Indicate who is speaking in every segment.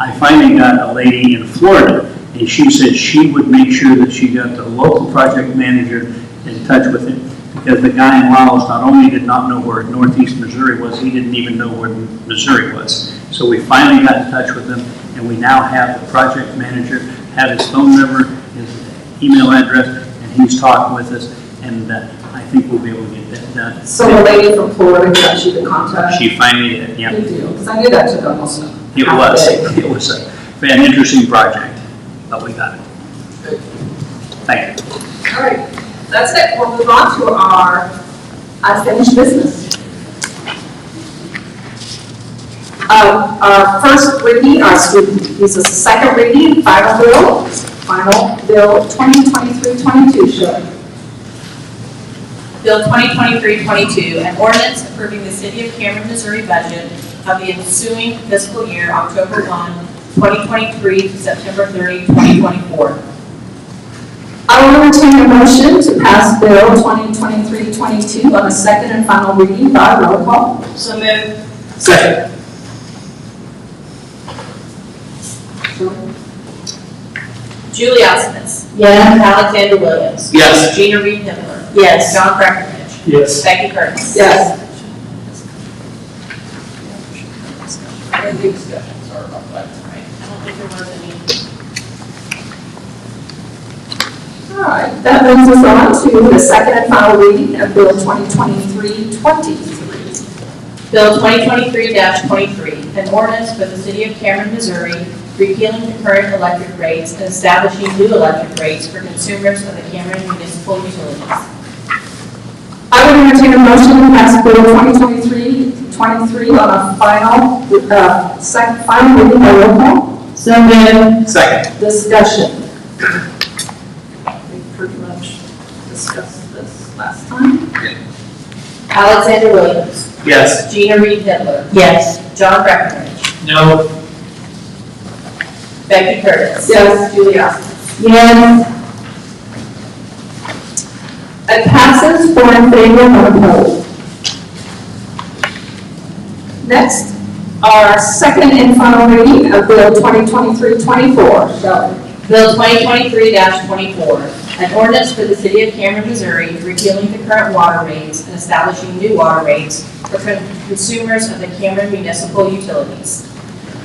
Speaker 1: I finally got a lady in Florida, and she said she would make sure that she got the local project manager in touch with him, because the guy in Laos not only did not know where northeast Missouri was, he didn't even know where Missouri was. So we finally got in touch with him, and we now have the project manager, have his phone number, his email address, and he's talking with us, and uh, I think we'll be able to get that done.
Speaker 2: So the lady from Florida got you the contact?
Speaker 1: She finally did, yeah.
Speaker 2: Good deal, because I knew that took almost a half
Speaker 1: It was,
Speaker 2: day.
Speaker 1: it was a- an interesting project, but we got it. Thank you.
Speaker 2: All right, that's it, we'll move on to our unfinished business. Um, Our first reading, our student, this is the second reading, final bill, final bill 2023-22, Shelley.
Speaker 3: Bill 2023-22, an ordinance approving the City of Cameron, Missouri budget of the ensuing fiscal year, October 1, 2023 to September 30, 2024.
Speaker 2: I will entertain a motion to pass bill 2023-22 on a second and final reading by roll call.
Speaker 3: So moved.
Speaker 1: Second.
Speaker 3: Julie Osmond.
Speaker 2: Yes.
Speaker 3: Alexander Williams.
Speaker 1: Yes.
Speaker 3: Gina Reed Hitler.
Speaker 2: Yes.
Speaker 3: John Breckinridge.
Speaker 1: Yes.
Speaker 3: Becky Curtis.
Speaker 2: Yes.
Speaker 3: Very good discussion, sorry about that. I don't think there was any.
Speaker 2: All right, that brings us on to the second and final reading of Bill 2023-23.
Speaker 3: Bill 2023-23, an ordinance for the City of Cameron, Missouri, repealing the current electric rates and establishing new electric rates for consumers of the Cameron Municipal Utilities.
Speaker 2: I would entertain a motion to pass Bill 2023-23 on a final, uh, sec, final reading by roll call. So moved.
Speaker 1: Second.
Speaker 2: Discussion. We pretty much discussed this last time.
Speaker 3: Alexander Williams.
Speaker 1: Yes.
Speaker 3: Gina Reed Hitler. Yes. John Breckinridge.
Speaker 1: No.
Speaker 3: Becky Curtis.
Speaker 2: Yes.
Speaker 3: Julie Osmond.
Speaker 2: Yes. It passes four in favor, one opposed. Next, our second and final reading of Bill 2023-24. Shelley.
Speaker 3: Bill 2023-24, an ordinance for the City of Cameron, Missouri, repealing the current water rates and establishing new water rates for con- consumers of the Cameron Municipal Utilities.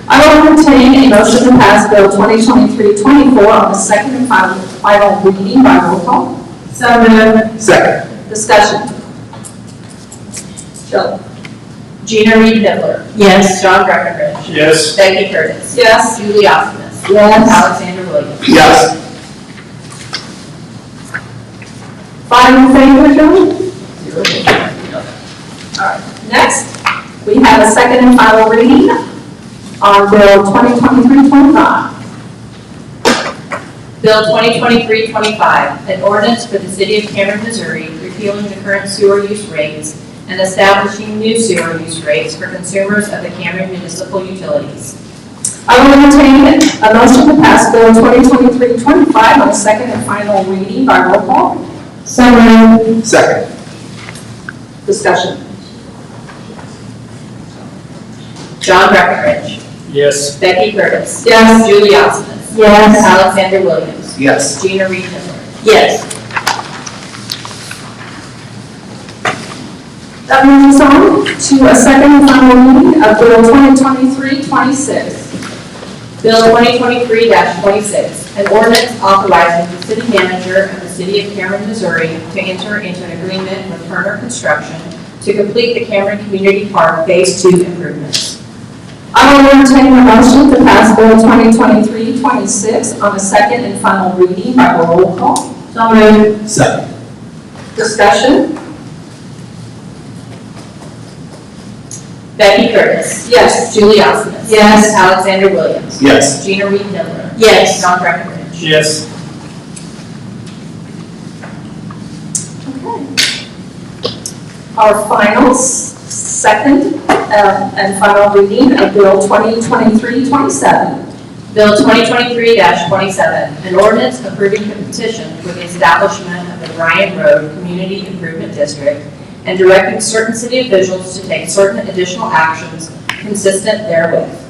Speaker 2: I will entertain a motion to pass Bill 2023-24 on the second and final, final reading by roll call. So
Speaker 1: Second.
Speaker 2: Discussion. Shelley.
Speaker 3: Gina Reed Hitler. Yes. John Breckinridge.
Speaker 1: Yes.
Speaker 3: Becky Curtis.
Speaker 2: Yes.
Speaker 3: Julie Osmond.
Speaker 2: Yes.
Speaker 3: Alexander Williams.
Speaker 1: Yes.
Speaker 2: Five in favor, Shelley? Next, we have a second and final reading on Bill 2023-25.
Speaker 3: Bill 2023-25, an ordinance for the city of Cameron, Missouri, repealing the current sewer use rates and establishing new sewer use rates for consumers of the Cameron municipal utilities.
Speaker 2: I will entertain a motion to pass Bill 2023-25 on second and final reading by roll call. So
Speaker 1: Second.
Speaker 2: Discussion.
Speaker 3: John Breckinridge.
Speaker 1: Yes.
Speaker 3: Becky Curtis.
Speaker 2: Yes.
Speaker 3: Julie Osmond.
Speaker 2: Yes.
Speaker 3: Alexander Williams.
Speaker 1: Yes.
Speaker 3: Gina Reed Hitler.
Speaker 2: Yes. That moves us on to a second and final reading of Bill 2023-26.
Speaker 3: Bill 2023-26, an ordinance authorizing the city manager of the city of Cameron, Missouri to enter into an agreement with Turner Construction to complete the Cameron Community Park Phase 2 improvements.
Speaker 2: I will entertain a motion to pass Bill 2023-26 on a second and final reading by roll call.
Speaker 3: So
Speaker 1: Second.
Speaker 2: Discussion?
Speaker 3: Becky Curtis.
Speaker 2: Yes.
Speaker 3: Julie Osmond.
Speaker 2: Yes.
Speaker 3: Alexander Williams.
Speaker 1: Yes.
Speaker 3: Gina Reed Hitler.
Speaker 2: Yes.
Speaker 3: John Breckinridge.
Speaker 1: Yes.
Speaker 2: Our final s- second uh, and final reading of Bill 2023-27.
Speaker 3: Bill 2023-27, an ordinance approving the petition for the establishment of the Bryan Road Community Improvement District and directing certain city officials to take certain additional actions consistent therewith.